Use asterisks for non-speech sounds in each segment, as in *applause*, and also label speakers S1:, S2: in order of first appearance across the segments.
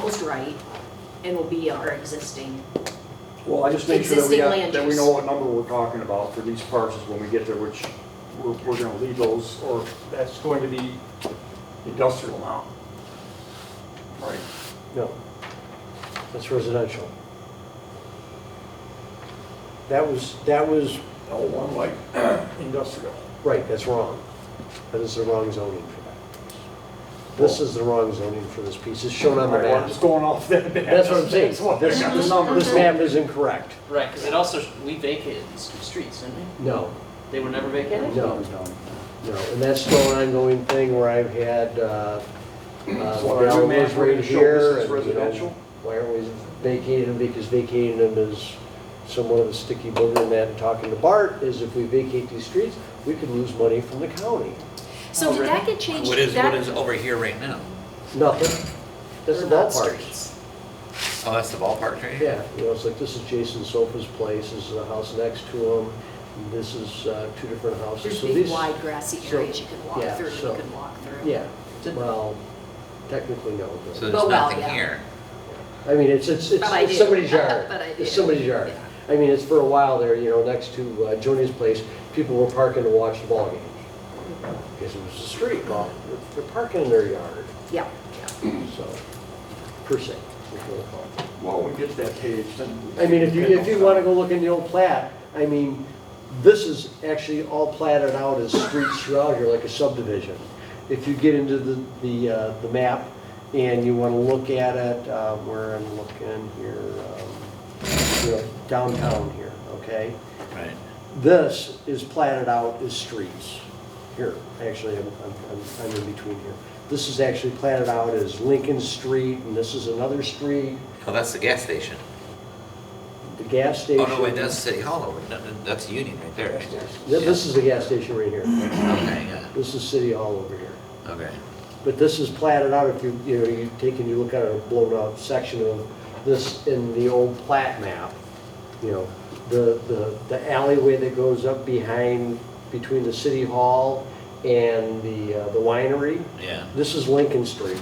S1: feels right and will be our existing.
S2: Well, I just make sure that we
S1: Existing
S2: got,
S1: land
S2: that we
S1: use.
S2: know what number we're talking about for these parcels when we get there, which we're, we're gonna leave those, or that's going to be industrial now. Right,
S3: No, that's residential. That was, that was,
S2: L one light *clears throat* industrial.
S3: right, that's wrong. That is the wrong zoning for that. This is the wrong zoning for this piece, it's shown on
S2: All
S3: the
S2: right, well, I'm
S3: map.
S2: just going off that.
S3: That's what I'm saying,
S2: That's what-
S3: this,
S2: the
S3: this-
S2: numbers.
S3: this map is incorrect.
S4: Right, because it also, we vacated these two streets, didn't we?
S3: No,
S4: They were never vacated?
S3: no, no, and that's still an ongoing thing where I've had, uh, uh,
S2: So the new
S3: ground
S2: map
S3: was
S2: we're gonna
S3: right
S2: show this
S3: here.
S2: is
S3: and, you know,
S2: residential?
S3: Why aren't we vacating them? Because vacating them is somewhat of a sticky booger in that. And talking to Bart is if we vacate these streets, we could lose money from the county.
S1: So did that get changed?
S5: What is,
S1: That-
S5: what is over here right now?
S3: Nothing. That's the
S1: They're not
S3: ballpark.
S1: streets.
S5: Oh, that's the ballpark, right?
S3: Yeah, you know, it's like, this is Jason Sofa's place, this is the house next to him, and this is uh, two different houses.
S1: There's
S3: So
S1: big
S3: these-
S1: wide grassy
S3: so-
S1: areas you could walk
S3: yeah,
S1: through, you
S3: so-
S1: could walk through.
S3: Yeah, well, technically no. but-
S1: But
S5: So there's
S1: well,
S5: nothing
S1: yeah.
S5: here.
S3: I mean, it's, it's, it's
S1: But I
S3: it's
S1: do.
S3: somebody's yard.
S1: *laughs* But I do.
S3: It's somebody's yard. I mean, it's for a while there, you know, next to uh, Joni's place, people were parking to watch the ball game. Because it was a street, well, they're- they're parking in their yard,
S1: Yeah, yeah.
S3: so, per se. is what I call it.
S2: Well, we get that page, then.
S3: I mean, if you, if you wanna go look in the old plat, I mean, this is actually all platted out as streets throughout here, like a subdivision. If you get into the, the, uh, the map and you wanna look at it, uh, where I'm looking here, um, you know, downtown here, okay?
S5: Right.
S3: This is platted out as streets. Here, actually, I'm, I'm, I'm- I'm in between here. This is actually platted out as Lincoln Street, and this is another street,
S5: Oh, that's the gas station.
S3: the gas
S5: Oh,
S3: station.
S5: no, wait, that's City Hall over, no, no, that's Union right there. right?
S3: Th- This is the gas station right here.
S5: Okay, yeah,
S3: This is City Hall over here.
S5: okay.
S3: But this is platted out, if you, you know, you take and you look at a blown out section of this in the old plat map, you know, the, the, the alleyway that goes up behind, between the City Hall and the, uh, the winery,
S5: Yeah,
S3: this is Lincoln Street.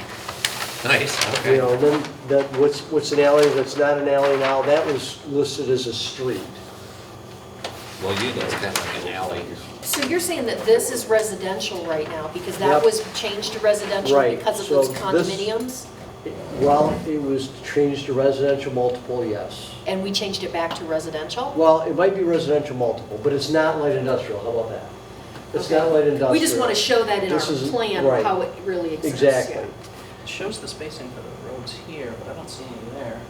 S5: nice,
S3: You
S5: okay.
S3: know, then, that, what's, what's an alley that's not an alley now, that was listed as a street.
S5: Well, Union's kind of like an alley.
S1: So you're saying that this is residential right now because that
S3: Yep.
S1: was changed to residential
S3: Right,
S1: because of
S3: so
S1: those
S3: this-
S1: condominiums?
S3: Well, it was changed to residential multiple, yes.
S1: And we changed it back to residential?
S3: Well, it might be residential multiple, but it's not light industrial, how about that? It's not light industrial.
S1: We just want to show that in our
S3: This is-
S1: plan,
S3: right.
S1: how it really exists. yeah.
S3: Exactly.
S4: It shows the spacing for the roads here, but I don't see any there.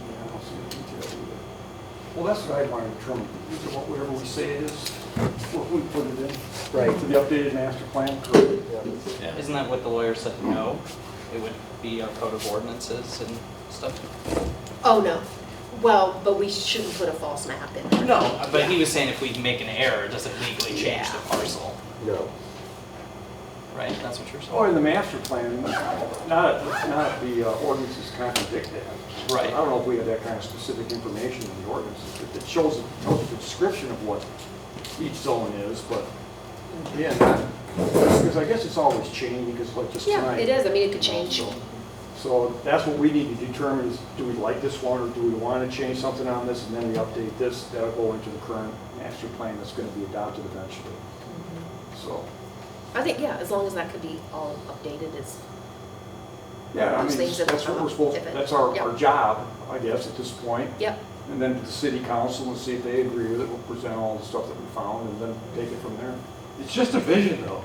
S2: Yeah, I don't see the detail either. Well, that's what I want to determine, is it what- whatever we say it is, what we put it in.
S3: Right.
S2: To the updated master plan, correct?
S5: Yeah.
S4: Isn't that what the lawyer said, no? It would be our code of ordinances and stuff?
S1: Oh, no. Well, but we shouldn't put a false map in there.
S4: No, but he was saying if we make an error, it doesn't legally change the
S1: Yeah.
S4: parcel,
S3: No.
S4: right? That's what you're saying?
S2: Or in Oh, the master plan, not, not the uh, ordinances contradict that.
S4: Right.
S2: I don't know if we have that kind of specific information in the ordinances, but it shows, tells the description of what each zone is, but, yeah, because I guess it's always changing, because like just
S1: Yeah,
S2: tonight.
S1: it is. I mean, it could change.
S2: So that's what we need to determine is, do we like this one, or do we want to change something on this, and then we update this, that'll go into the current master plan that's going to be adopted eventually.
S1: Mm-hmm.
S2: So,
S1: I think, yeah, as long as that could be all updated is,
S2: yeah, I
S1: Those
S2: mean,
S1: things that
S2: that's what
S1: come up,
S2: we're supposed,
S1: if it-
S2: that's our, our
S1: yeah.
S2: job, I guess, at this point.
S1: yep.
S2: And then to the city council and see if they agree with it, we'll present all the stuff that we found, and then take it from there. It's just a vision, though.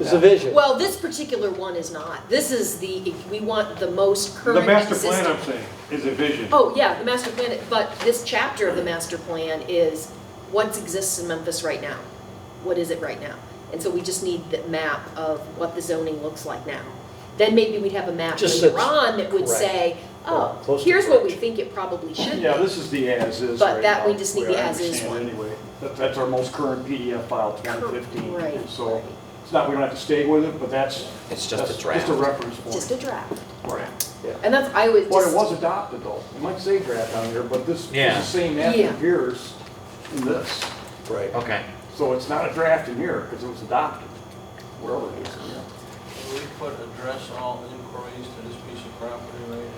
S3: It's a vision.
S1: Well, this particular one is not. This is the, we want the most current
S6: The master
S1: existing.
S6: plan, I'm saying, is a vision.
S1: Oh, yeah, the master plan, but this chapter of the master plan is what exists in Memphis right now? What is it right now? And so we just need the map of what the zoning looks like now. Then maybe we'd have a map
S3: Just
S1: later
S3: that's
S1: on that would
S3: correct.
S1: say,
S3: Well,
S1: oh,
S3: close to
S1: here's what we
S3: correct.
S1: think it probably should be.
S2: Yeah, this is the as-is
S1: But
S2: right
S1: that we
S2: now,
S1: just need
S2: way
S1: the
S2: I
S1: as-is
S2: understand it
S1: one.
S2: Anyway, That- that's our most current PDF file, 2015.
S1: Right,
S2: So
S1: right.
S2: it's not, we don't have to stay with it, but that's.
S5: It's just a
S2: that's
S5: draft.
S2: Just a reference
S1: Just
S2: point.
S1: a draft.
S2: Right.
S1: And that's, I always
S2: But it
S1: just,
S2: was adopted though. It might say draft on there, but this,
S5: Yeah.
S2: this is the same map
S1: Yeah.
S2: that appears in this.
S3: Right.
S5: Okay.
S2: So it's not a draft in here because it was adopted, wherever it is. in here.
S7: We put address all inquiries
S3: raised to this piece of property right here.